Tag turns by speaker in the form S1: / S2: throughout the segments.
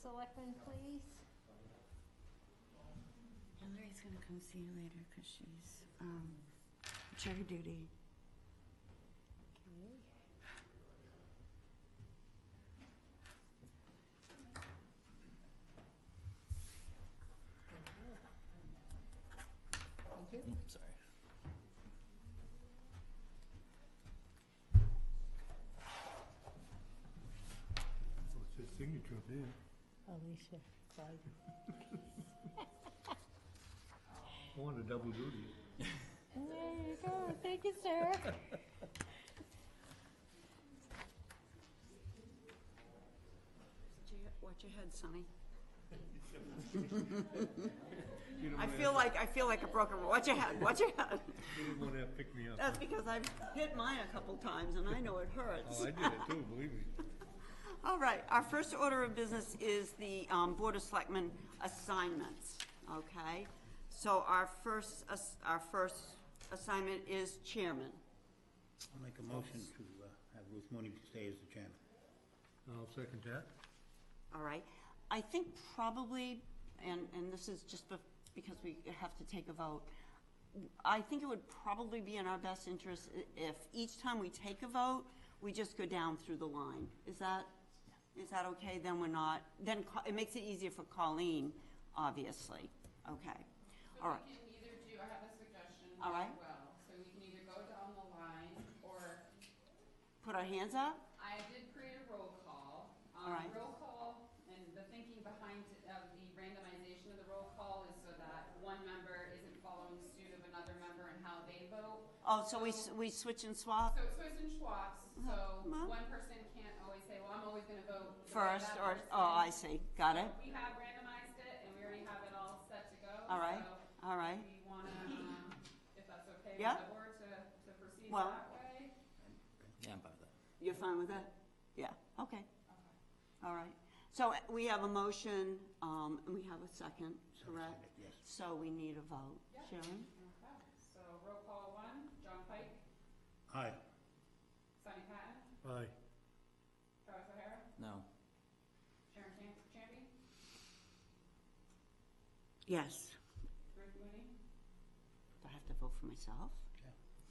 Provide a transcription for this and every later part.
S1: selectmen, please?
S2: Hillary's gonna come see you later, cause she's, um, chair duty.
S3: Oh, Sorry.
S4: Well, it's his signature up there.
S1: Alicia, Clyde.
S4: I want a double duty.
S1: There you go, thank you, sir.
S2: Watch your head, Sonny. I feel like, I feel like a broken, watch your head, watch your head.
S4: You didn't want to have pick me up.
S2: That's because I've hit mine a couple times and I know it hurts.
S4: Oh, I did it too, believe me.
S2: All right, our first order of business is the um, Board of Selectmen assignments, okay? So our first, ass- our first assignment is chairman.
S3: I'll make a motion to uh, have Ruth Mooney stay as the chairman.
S4: I'll second that.
S2: All right, I think probably, and, and this is just bef- because we have to take a vote, I think it would probably be in our best interest i- if each time we take a vote, we just go down through the line. Is that, is that okay? Then we're not, then Co- it makes it easier for Colleen, obviously. Okay, all right.
S5: But we can either do, I have a suggestion
S2: All right.
S5: as well, so we can either go down the line, or,
S2: Put our hands up?
S5: I did create a roll call. Um,
S2: All right.
S5: Roll call, and the thinking behind it of the randomization of the roll call is so that one member isn't following suit of another member and how they vote.
S2: Oh, so we, s- we switch and swap?
S5: So it's Swiss and Schwab's,
S2: uh-huh.
S5: so
S2: Well.
S5: one person can't always say, well, I'm always gonna vote. the way
S2: First,
S5: that
S2: or,
S5: person."
S2: oh, I see, got it?
S5: We have randomized it, and we already have it all set to go.
S2: All right,
S5: so
S2: all right.
S5: We wanna, um, if that's okay
S2: Yeah.
S5: with the board to, to proceed
S2: Well-
S5: that way?
S3: Yeah, I'm fine with that.
S2: You're fine with that? Yeah, okay. All right. So uh, we have a motion, um, and we have a second, correct?
S3: Yes.
S2: So we need a vote.
S5: Yeah.
S2: Sharon?
S5: Okay, so roll call one, John Pike,
S3: Aye.
S5: Sonny Patton,
S4: Aye.
S5: Travis O'Hara,
S3: No.
S5: Sharon Chan- Champion,
S2: Yes.
S5: Ruth Mooney,
S2: Do I have to vote for myself?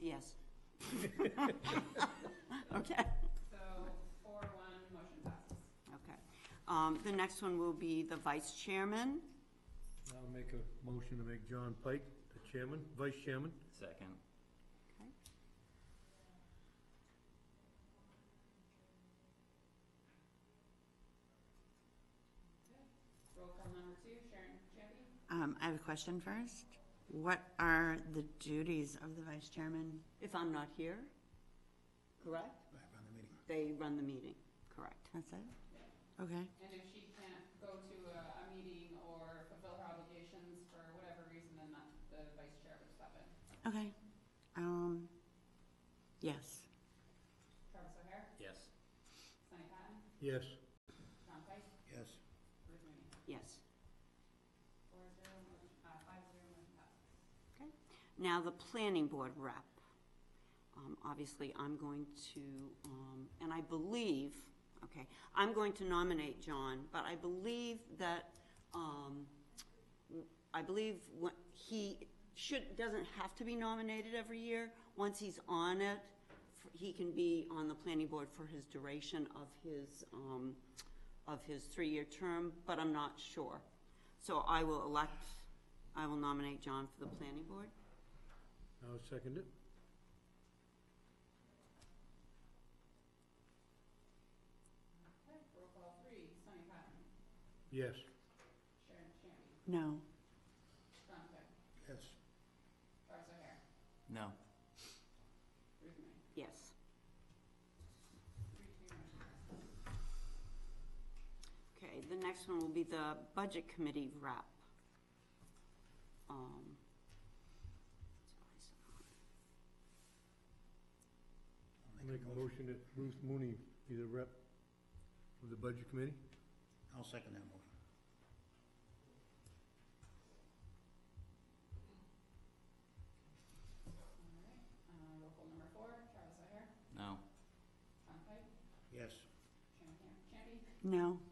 S3: Yeah.
S2: Yes. Okay,
S5: so four, one, motion passes.
S2: okay. Um, the next one will be the vice chairman.
S4: I'll make a motion to make John Pike the chairman, vice chairman.
S6: Second.
S5: Roll call number two, Sharon Champion,
S2: Um, I have a question first. What are the duties of the vice chairman? If I'm not here, correct?
S3: I run the meeting.
S2: They run the meeting, correct? That's it? Okay.
S5: and if she can't go to a, a meeting or fulfill her obligations for whatever reason, then that, the vice chair would step in.
S2: Okay. Um, yes.
S5: Travis O'Hare,
S6: Yes.
S5: Sonny Patton,
S4: Yes.
S5: John Pike,
S3: Yes.
S5: Ruth Mooney.
S2: Yes.
S5: Four zero, motion, uh, five zero, motion passes.
S2: Okay. Now, the planning board rep. Um, obviously, I'm going to, um, and I believe, okay, I'm going to nominate John, but I believe that, um, I believe what he should, doesn't have to be nominated every year. Once he's on it, f- he can be on the planning board for his duration of his, um, of his three-year term, but I'm not sure. So I will elect, I will nominate John for the planning board.
S4: I'll second it.
S5: Okay, roll call three, Sonny Patton,
S4: Yes.
S5: Sharon Champion,
S2: No.
S5: John Pike,
S3: Yes.
S5: Travis O'Hare,
S6: No.
S5: Ruth Mooney.
S2: Yes.
S5: Three, two, motion passes.
S2: Okay, the next one will be the budget committee rep. Um,
S3: I'll
S4: Make a motion that Ruth Mooney be the rep of the budget committee.
S3: I'll second that motion.
S5: Alright, uh, roll call number four, Travis O'Hare,
S6: No.
S5: John Pike,
S3: Yes.
S5: Sharon Cam- Champion,
S2: No.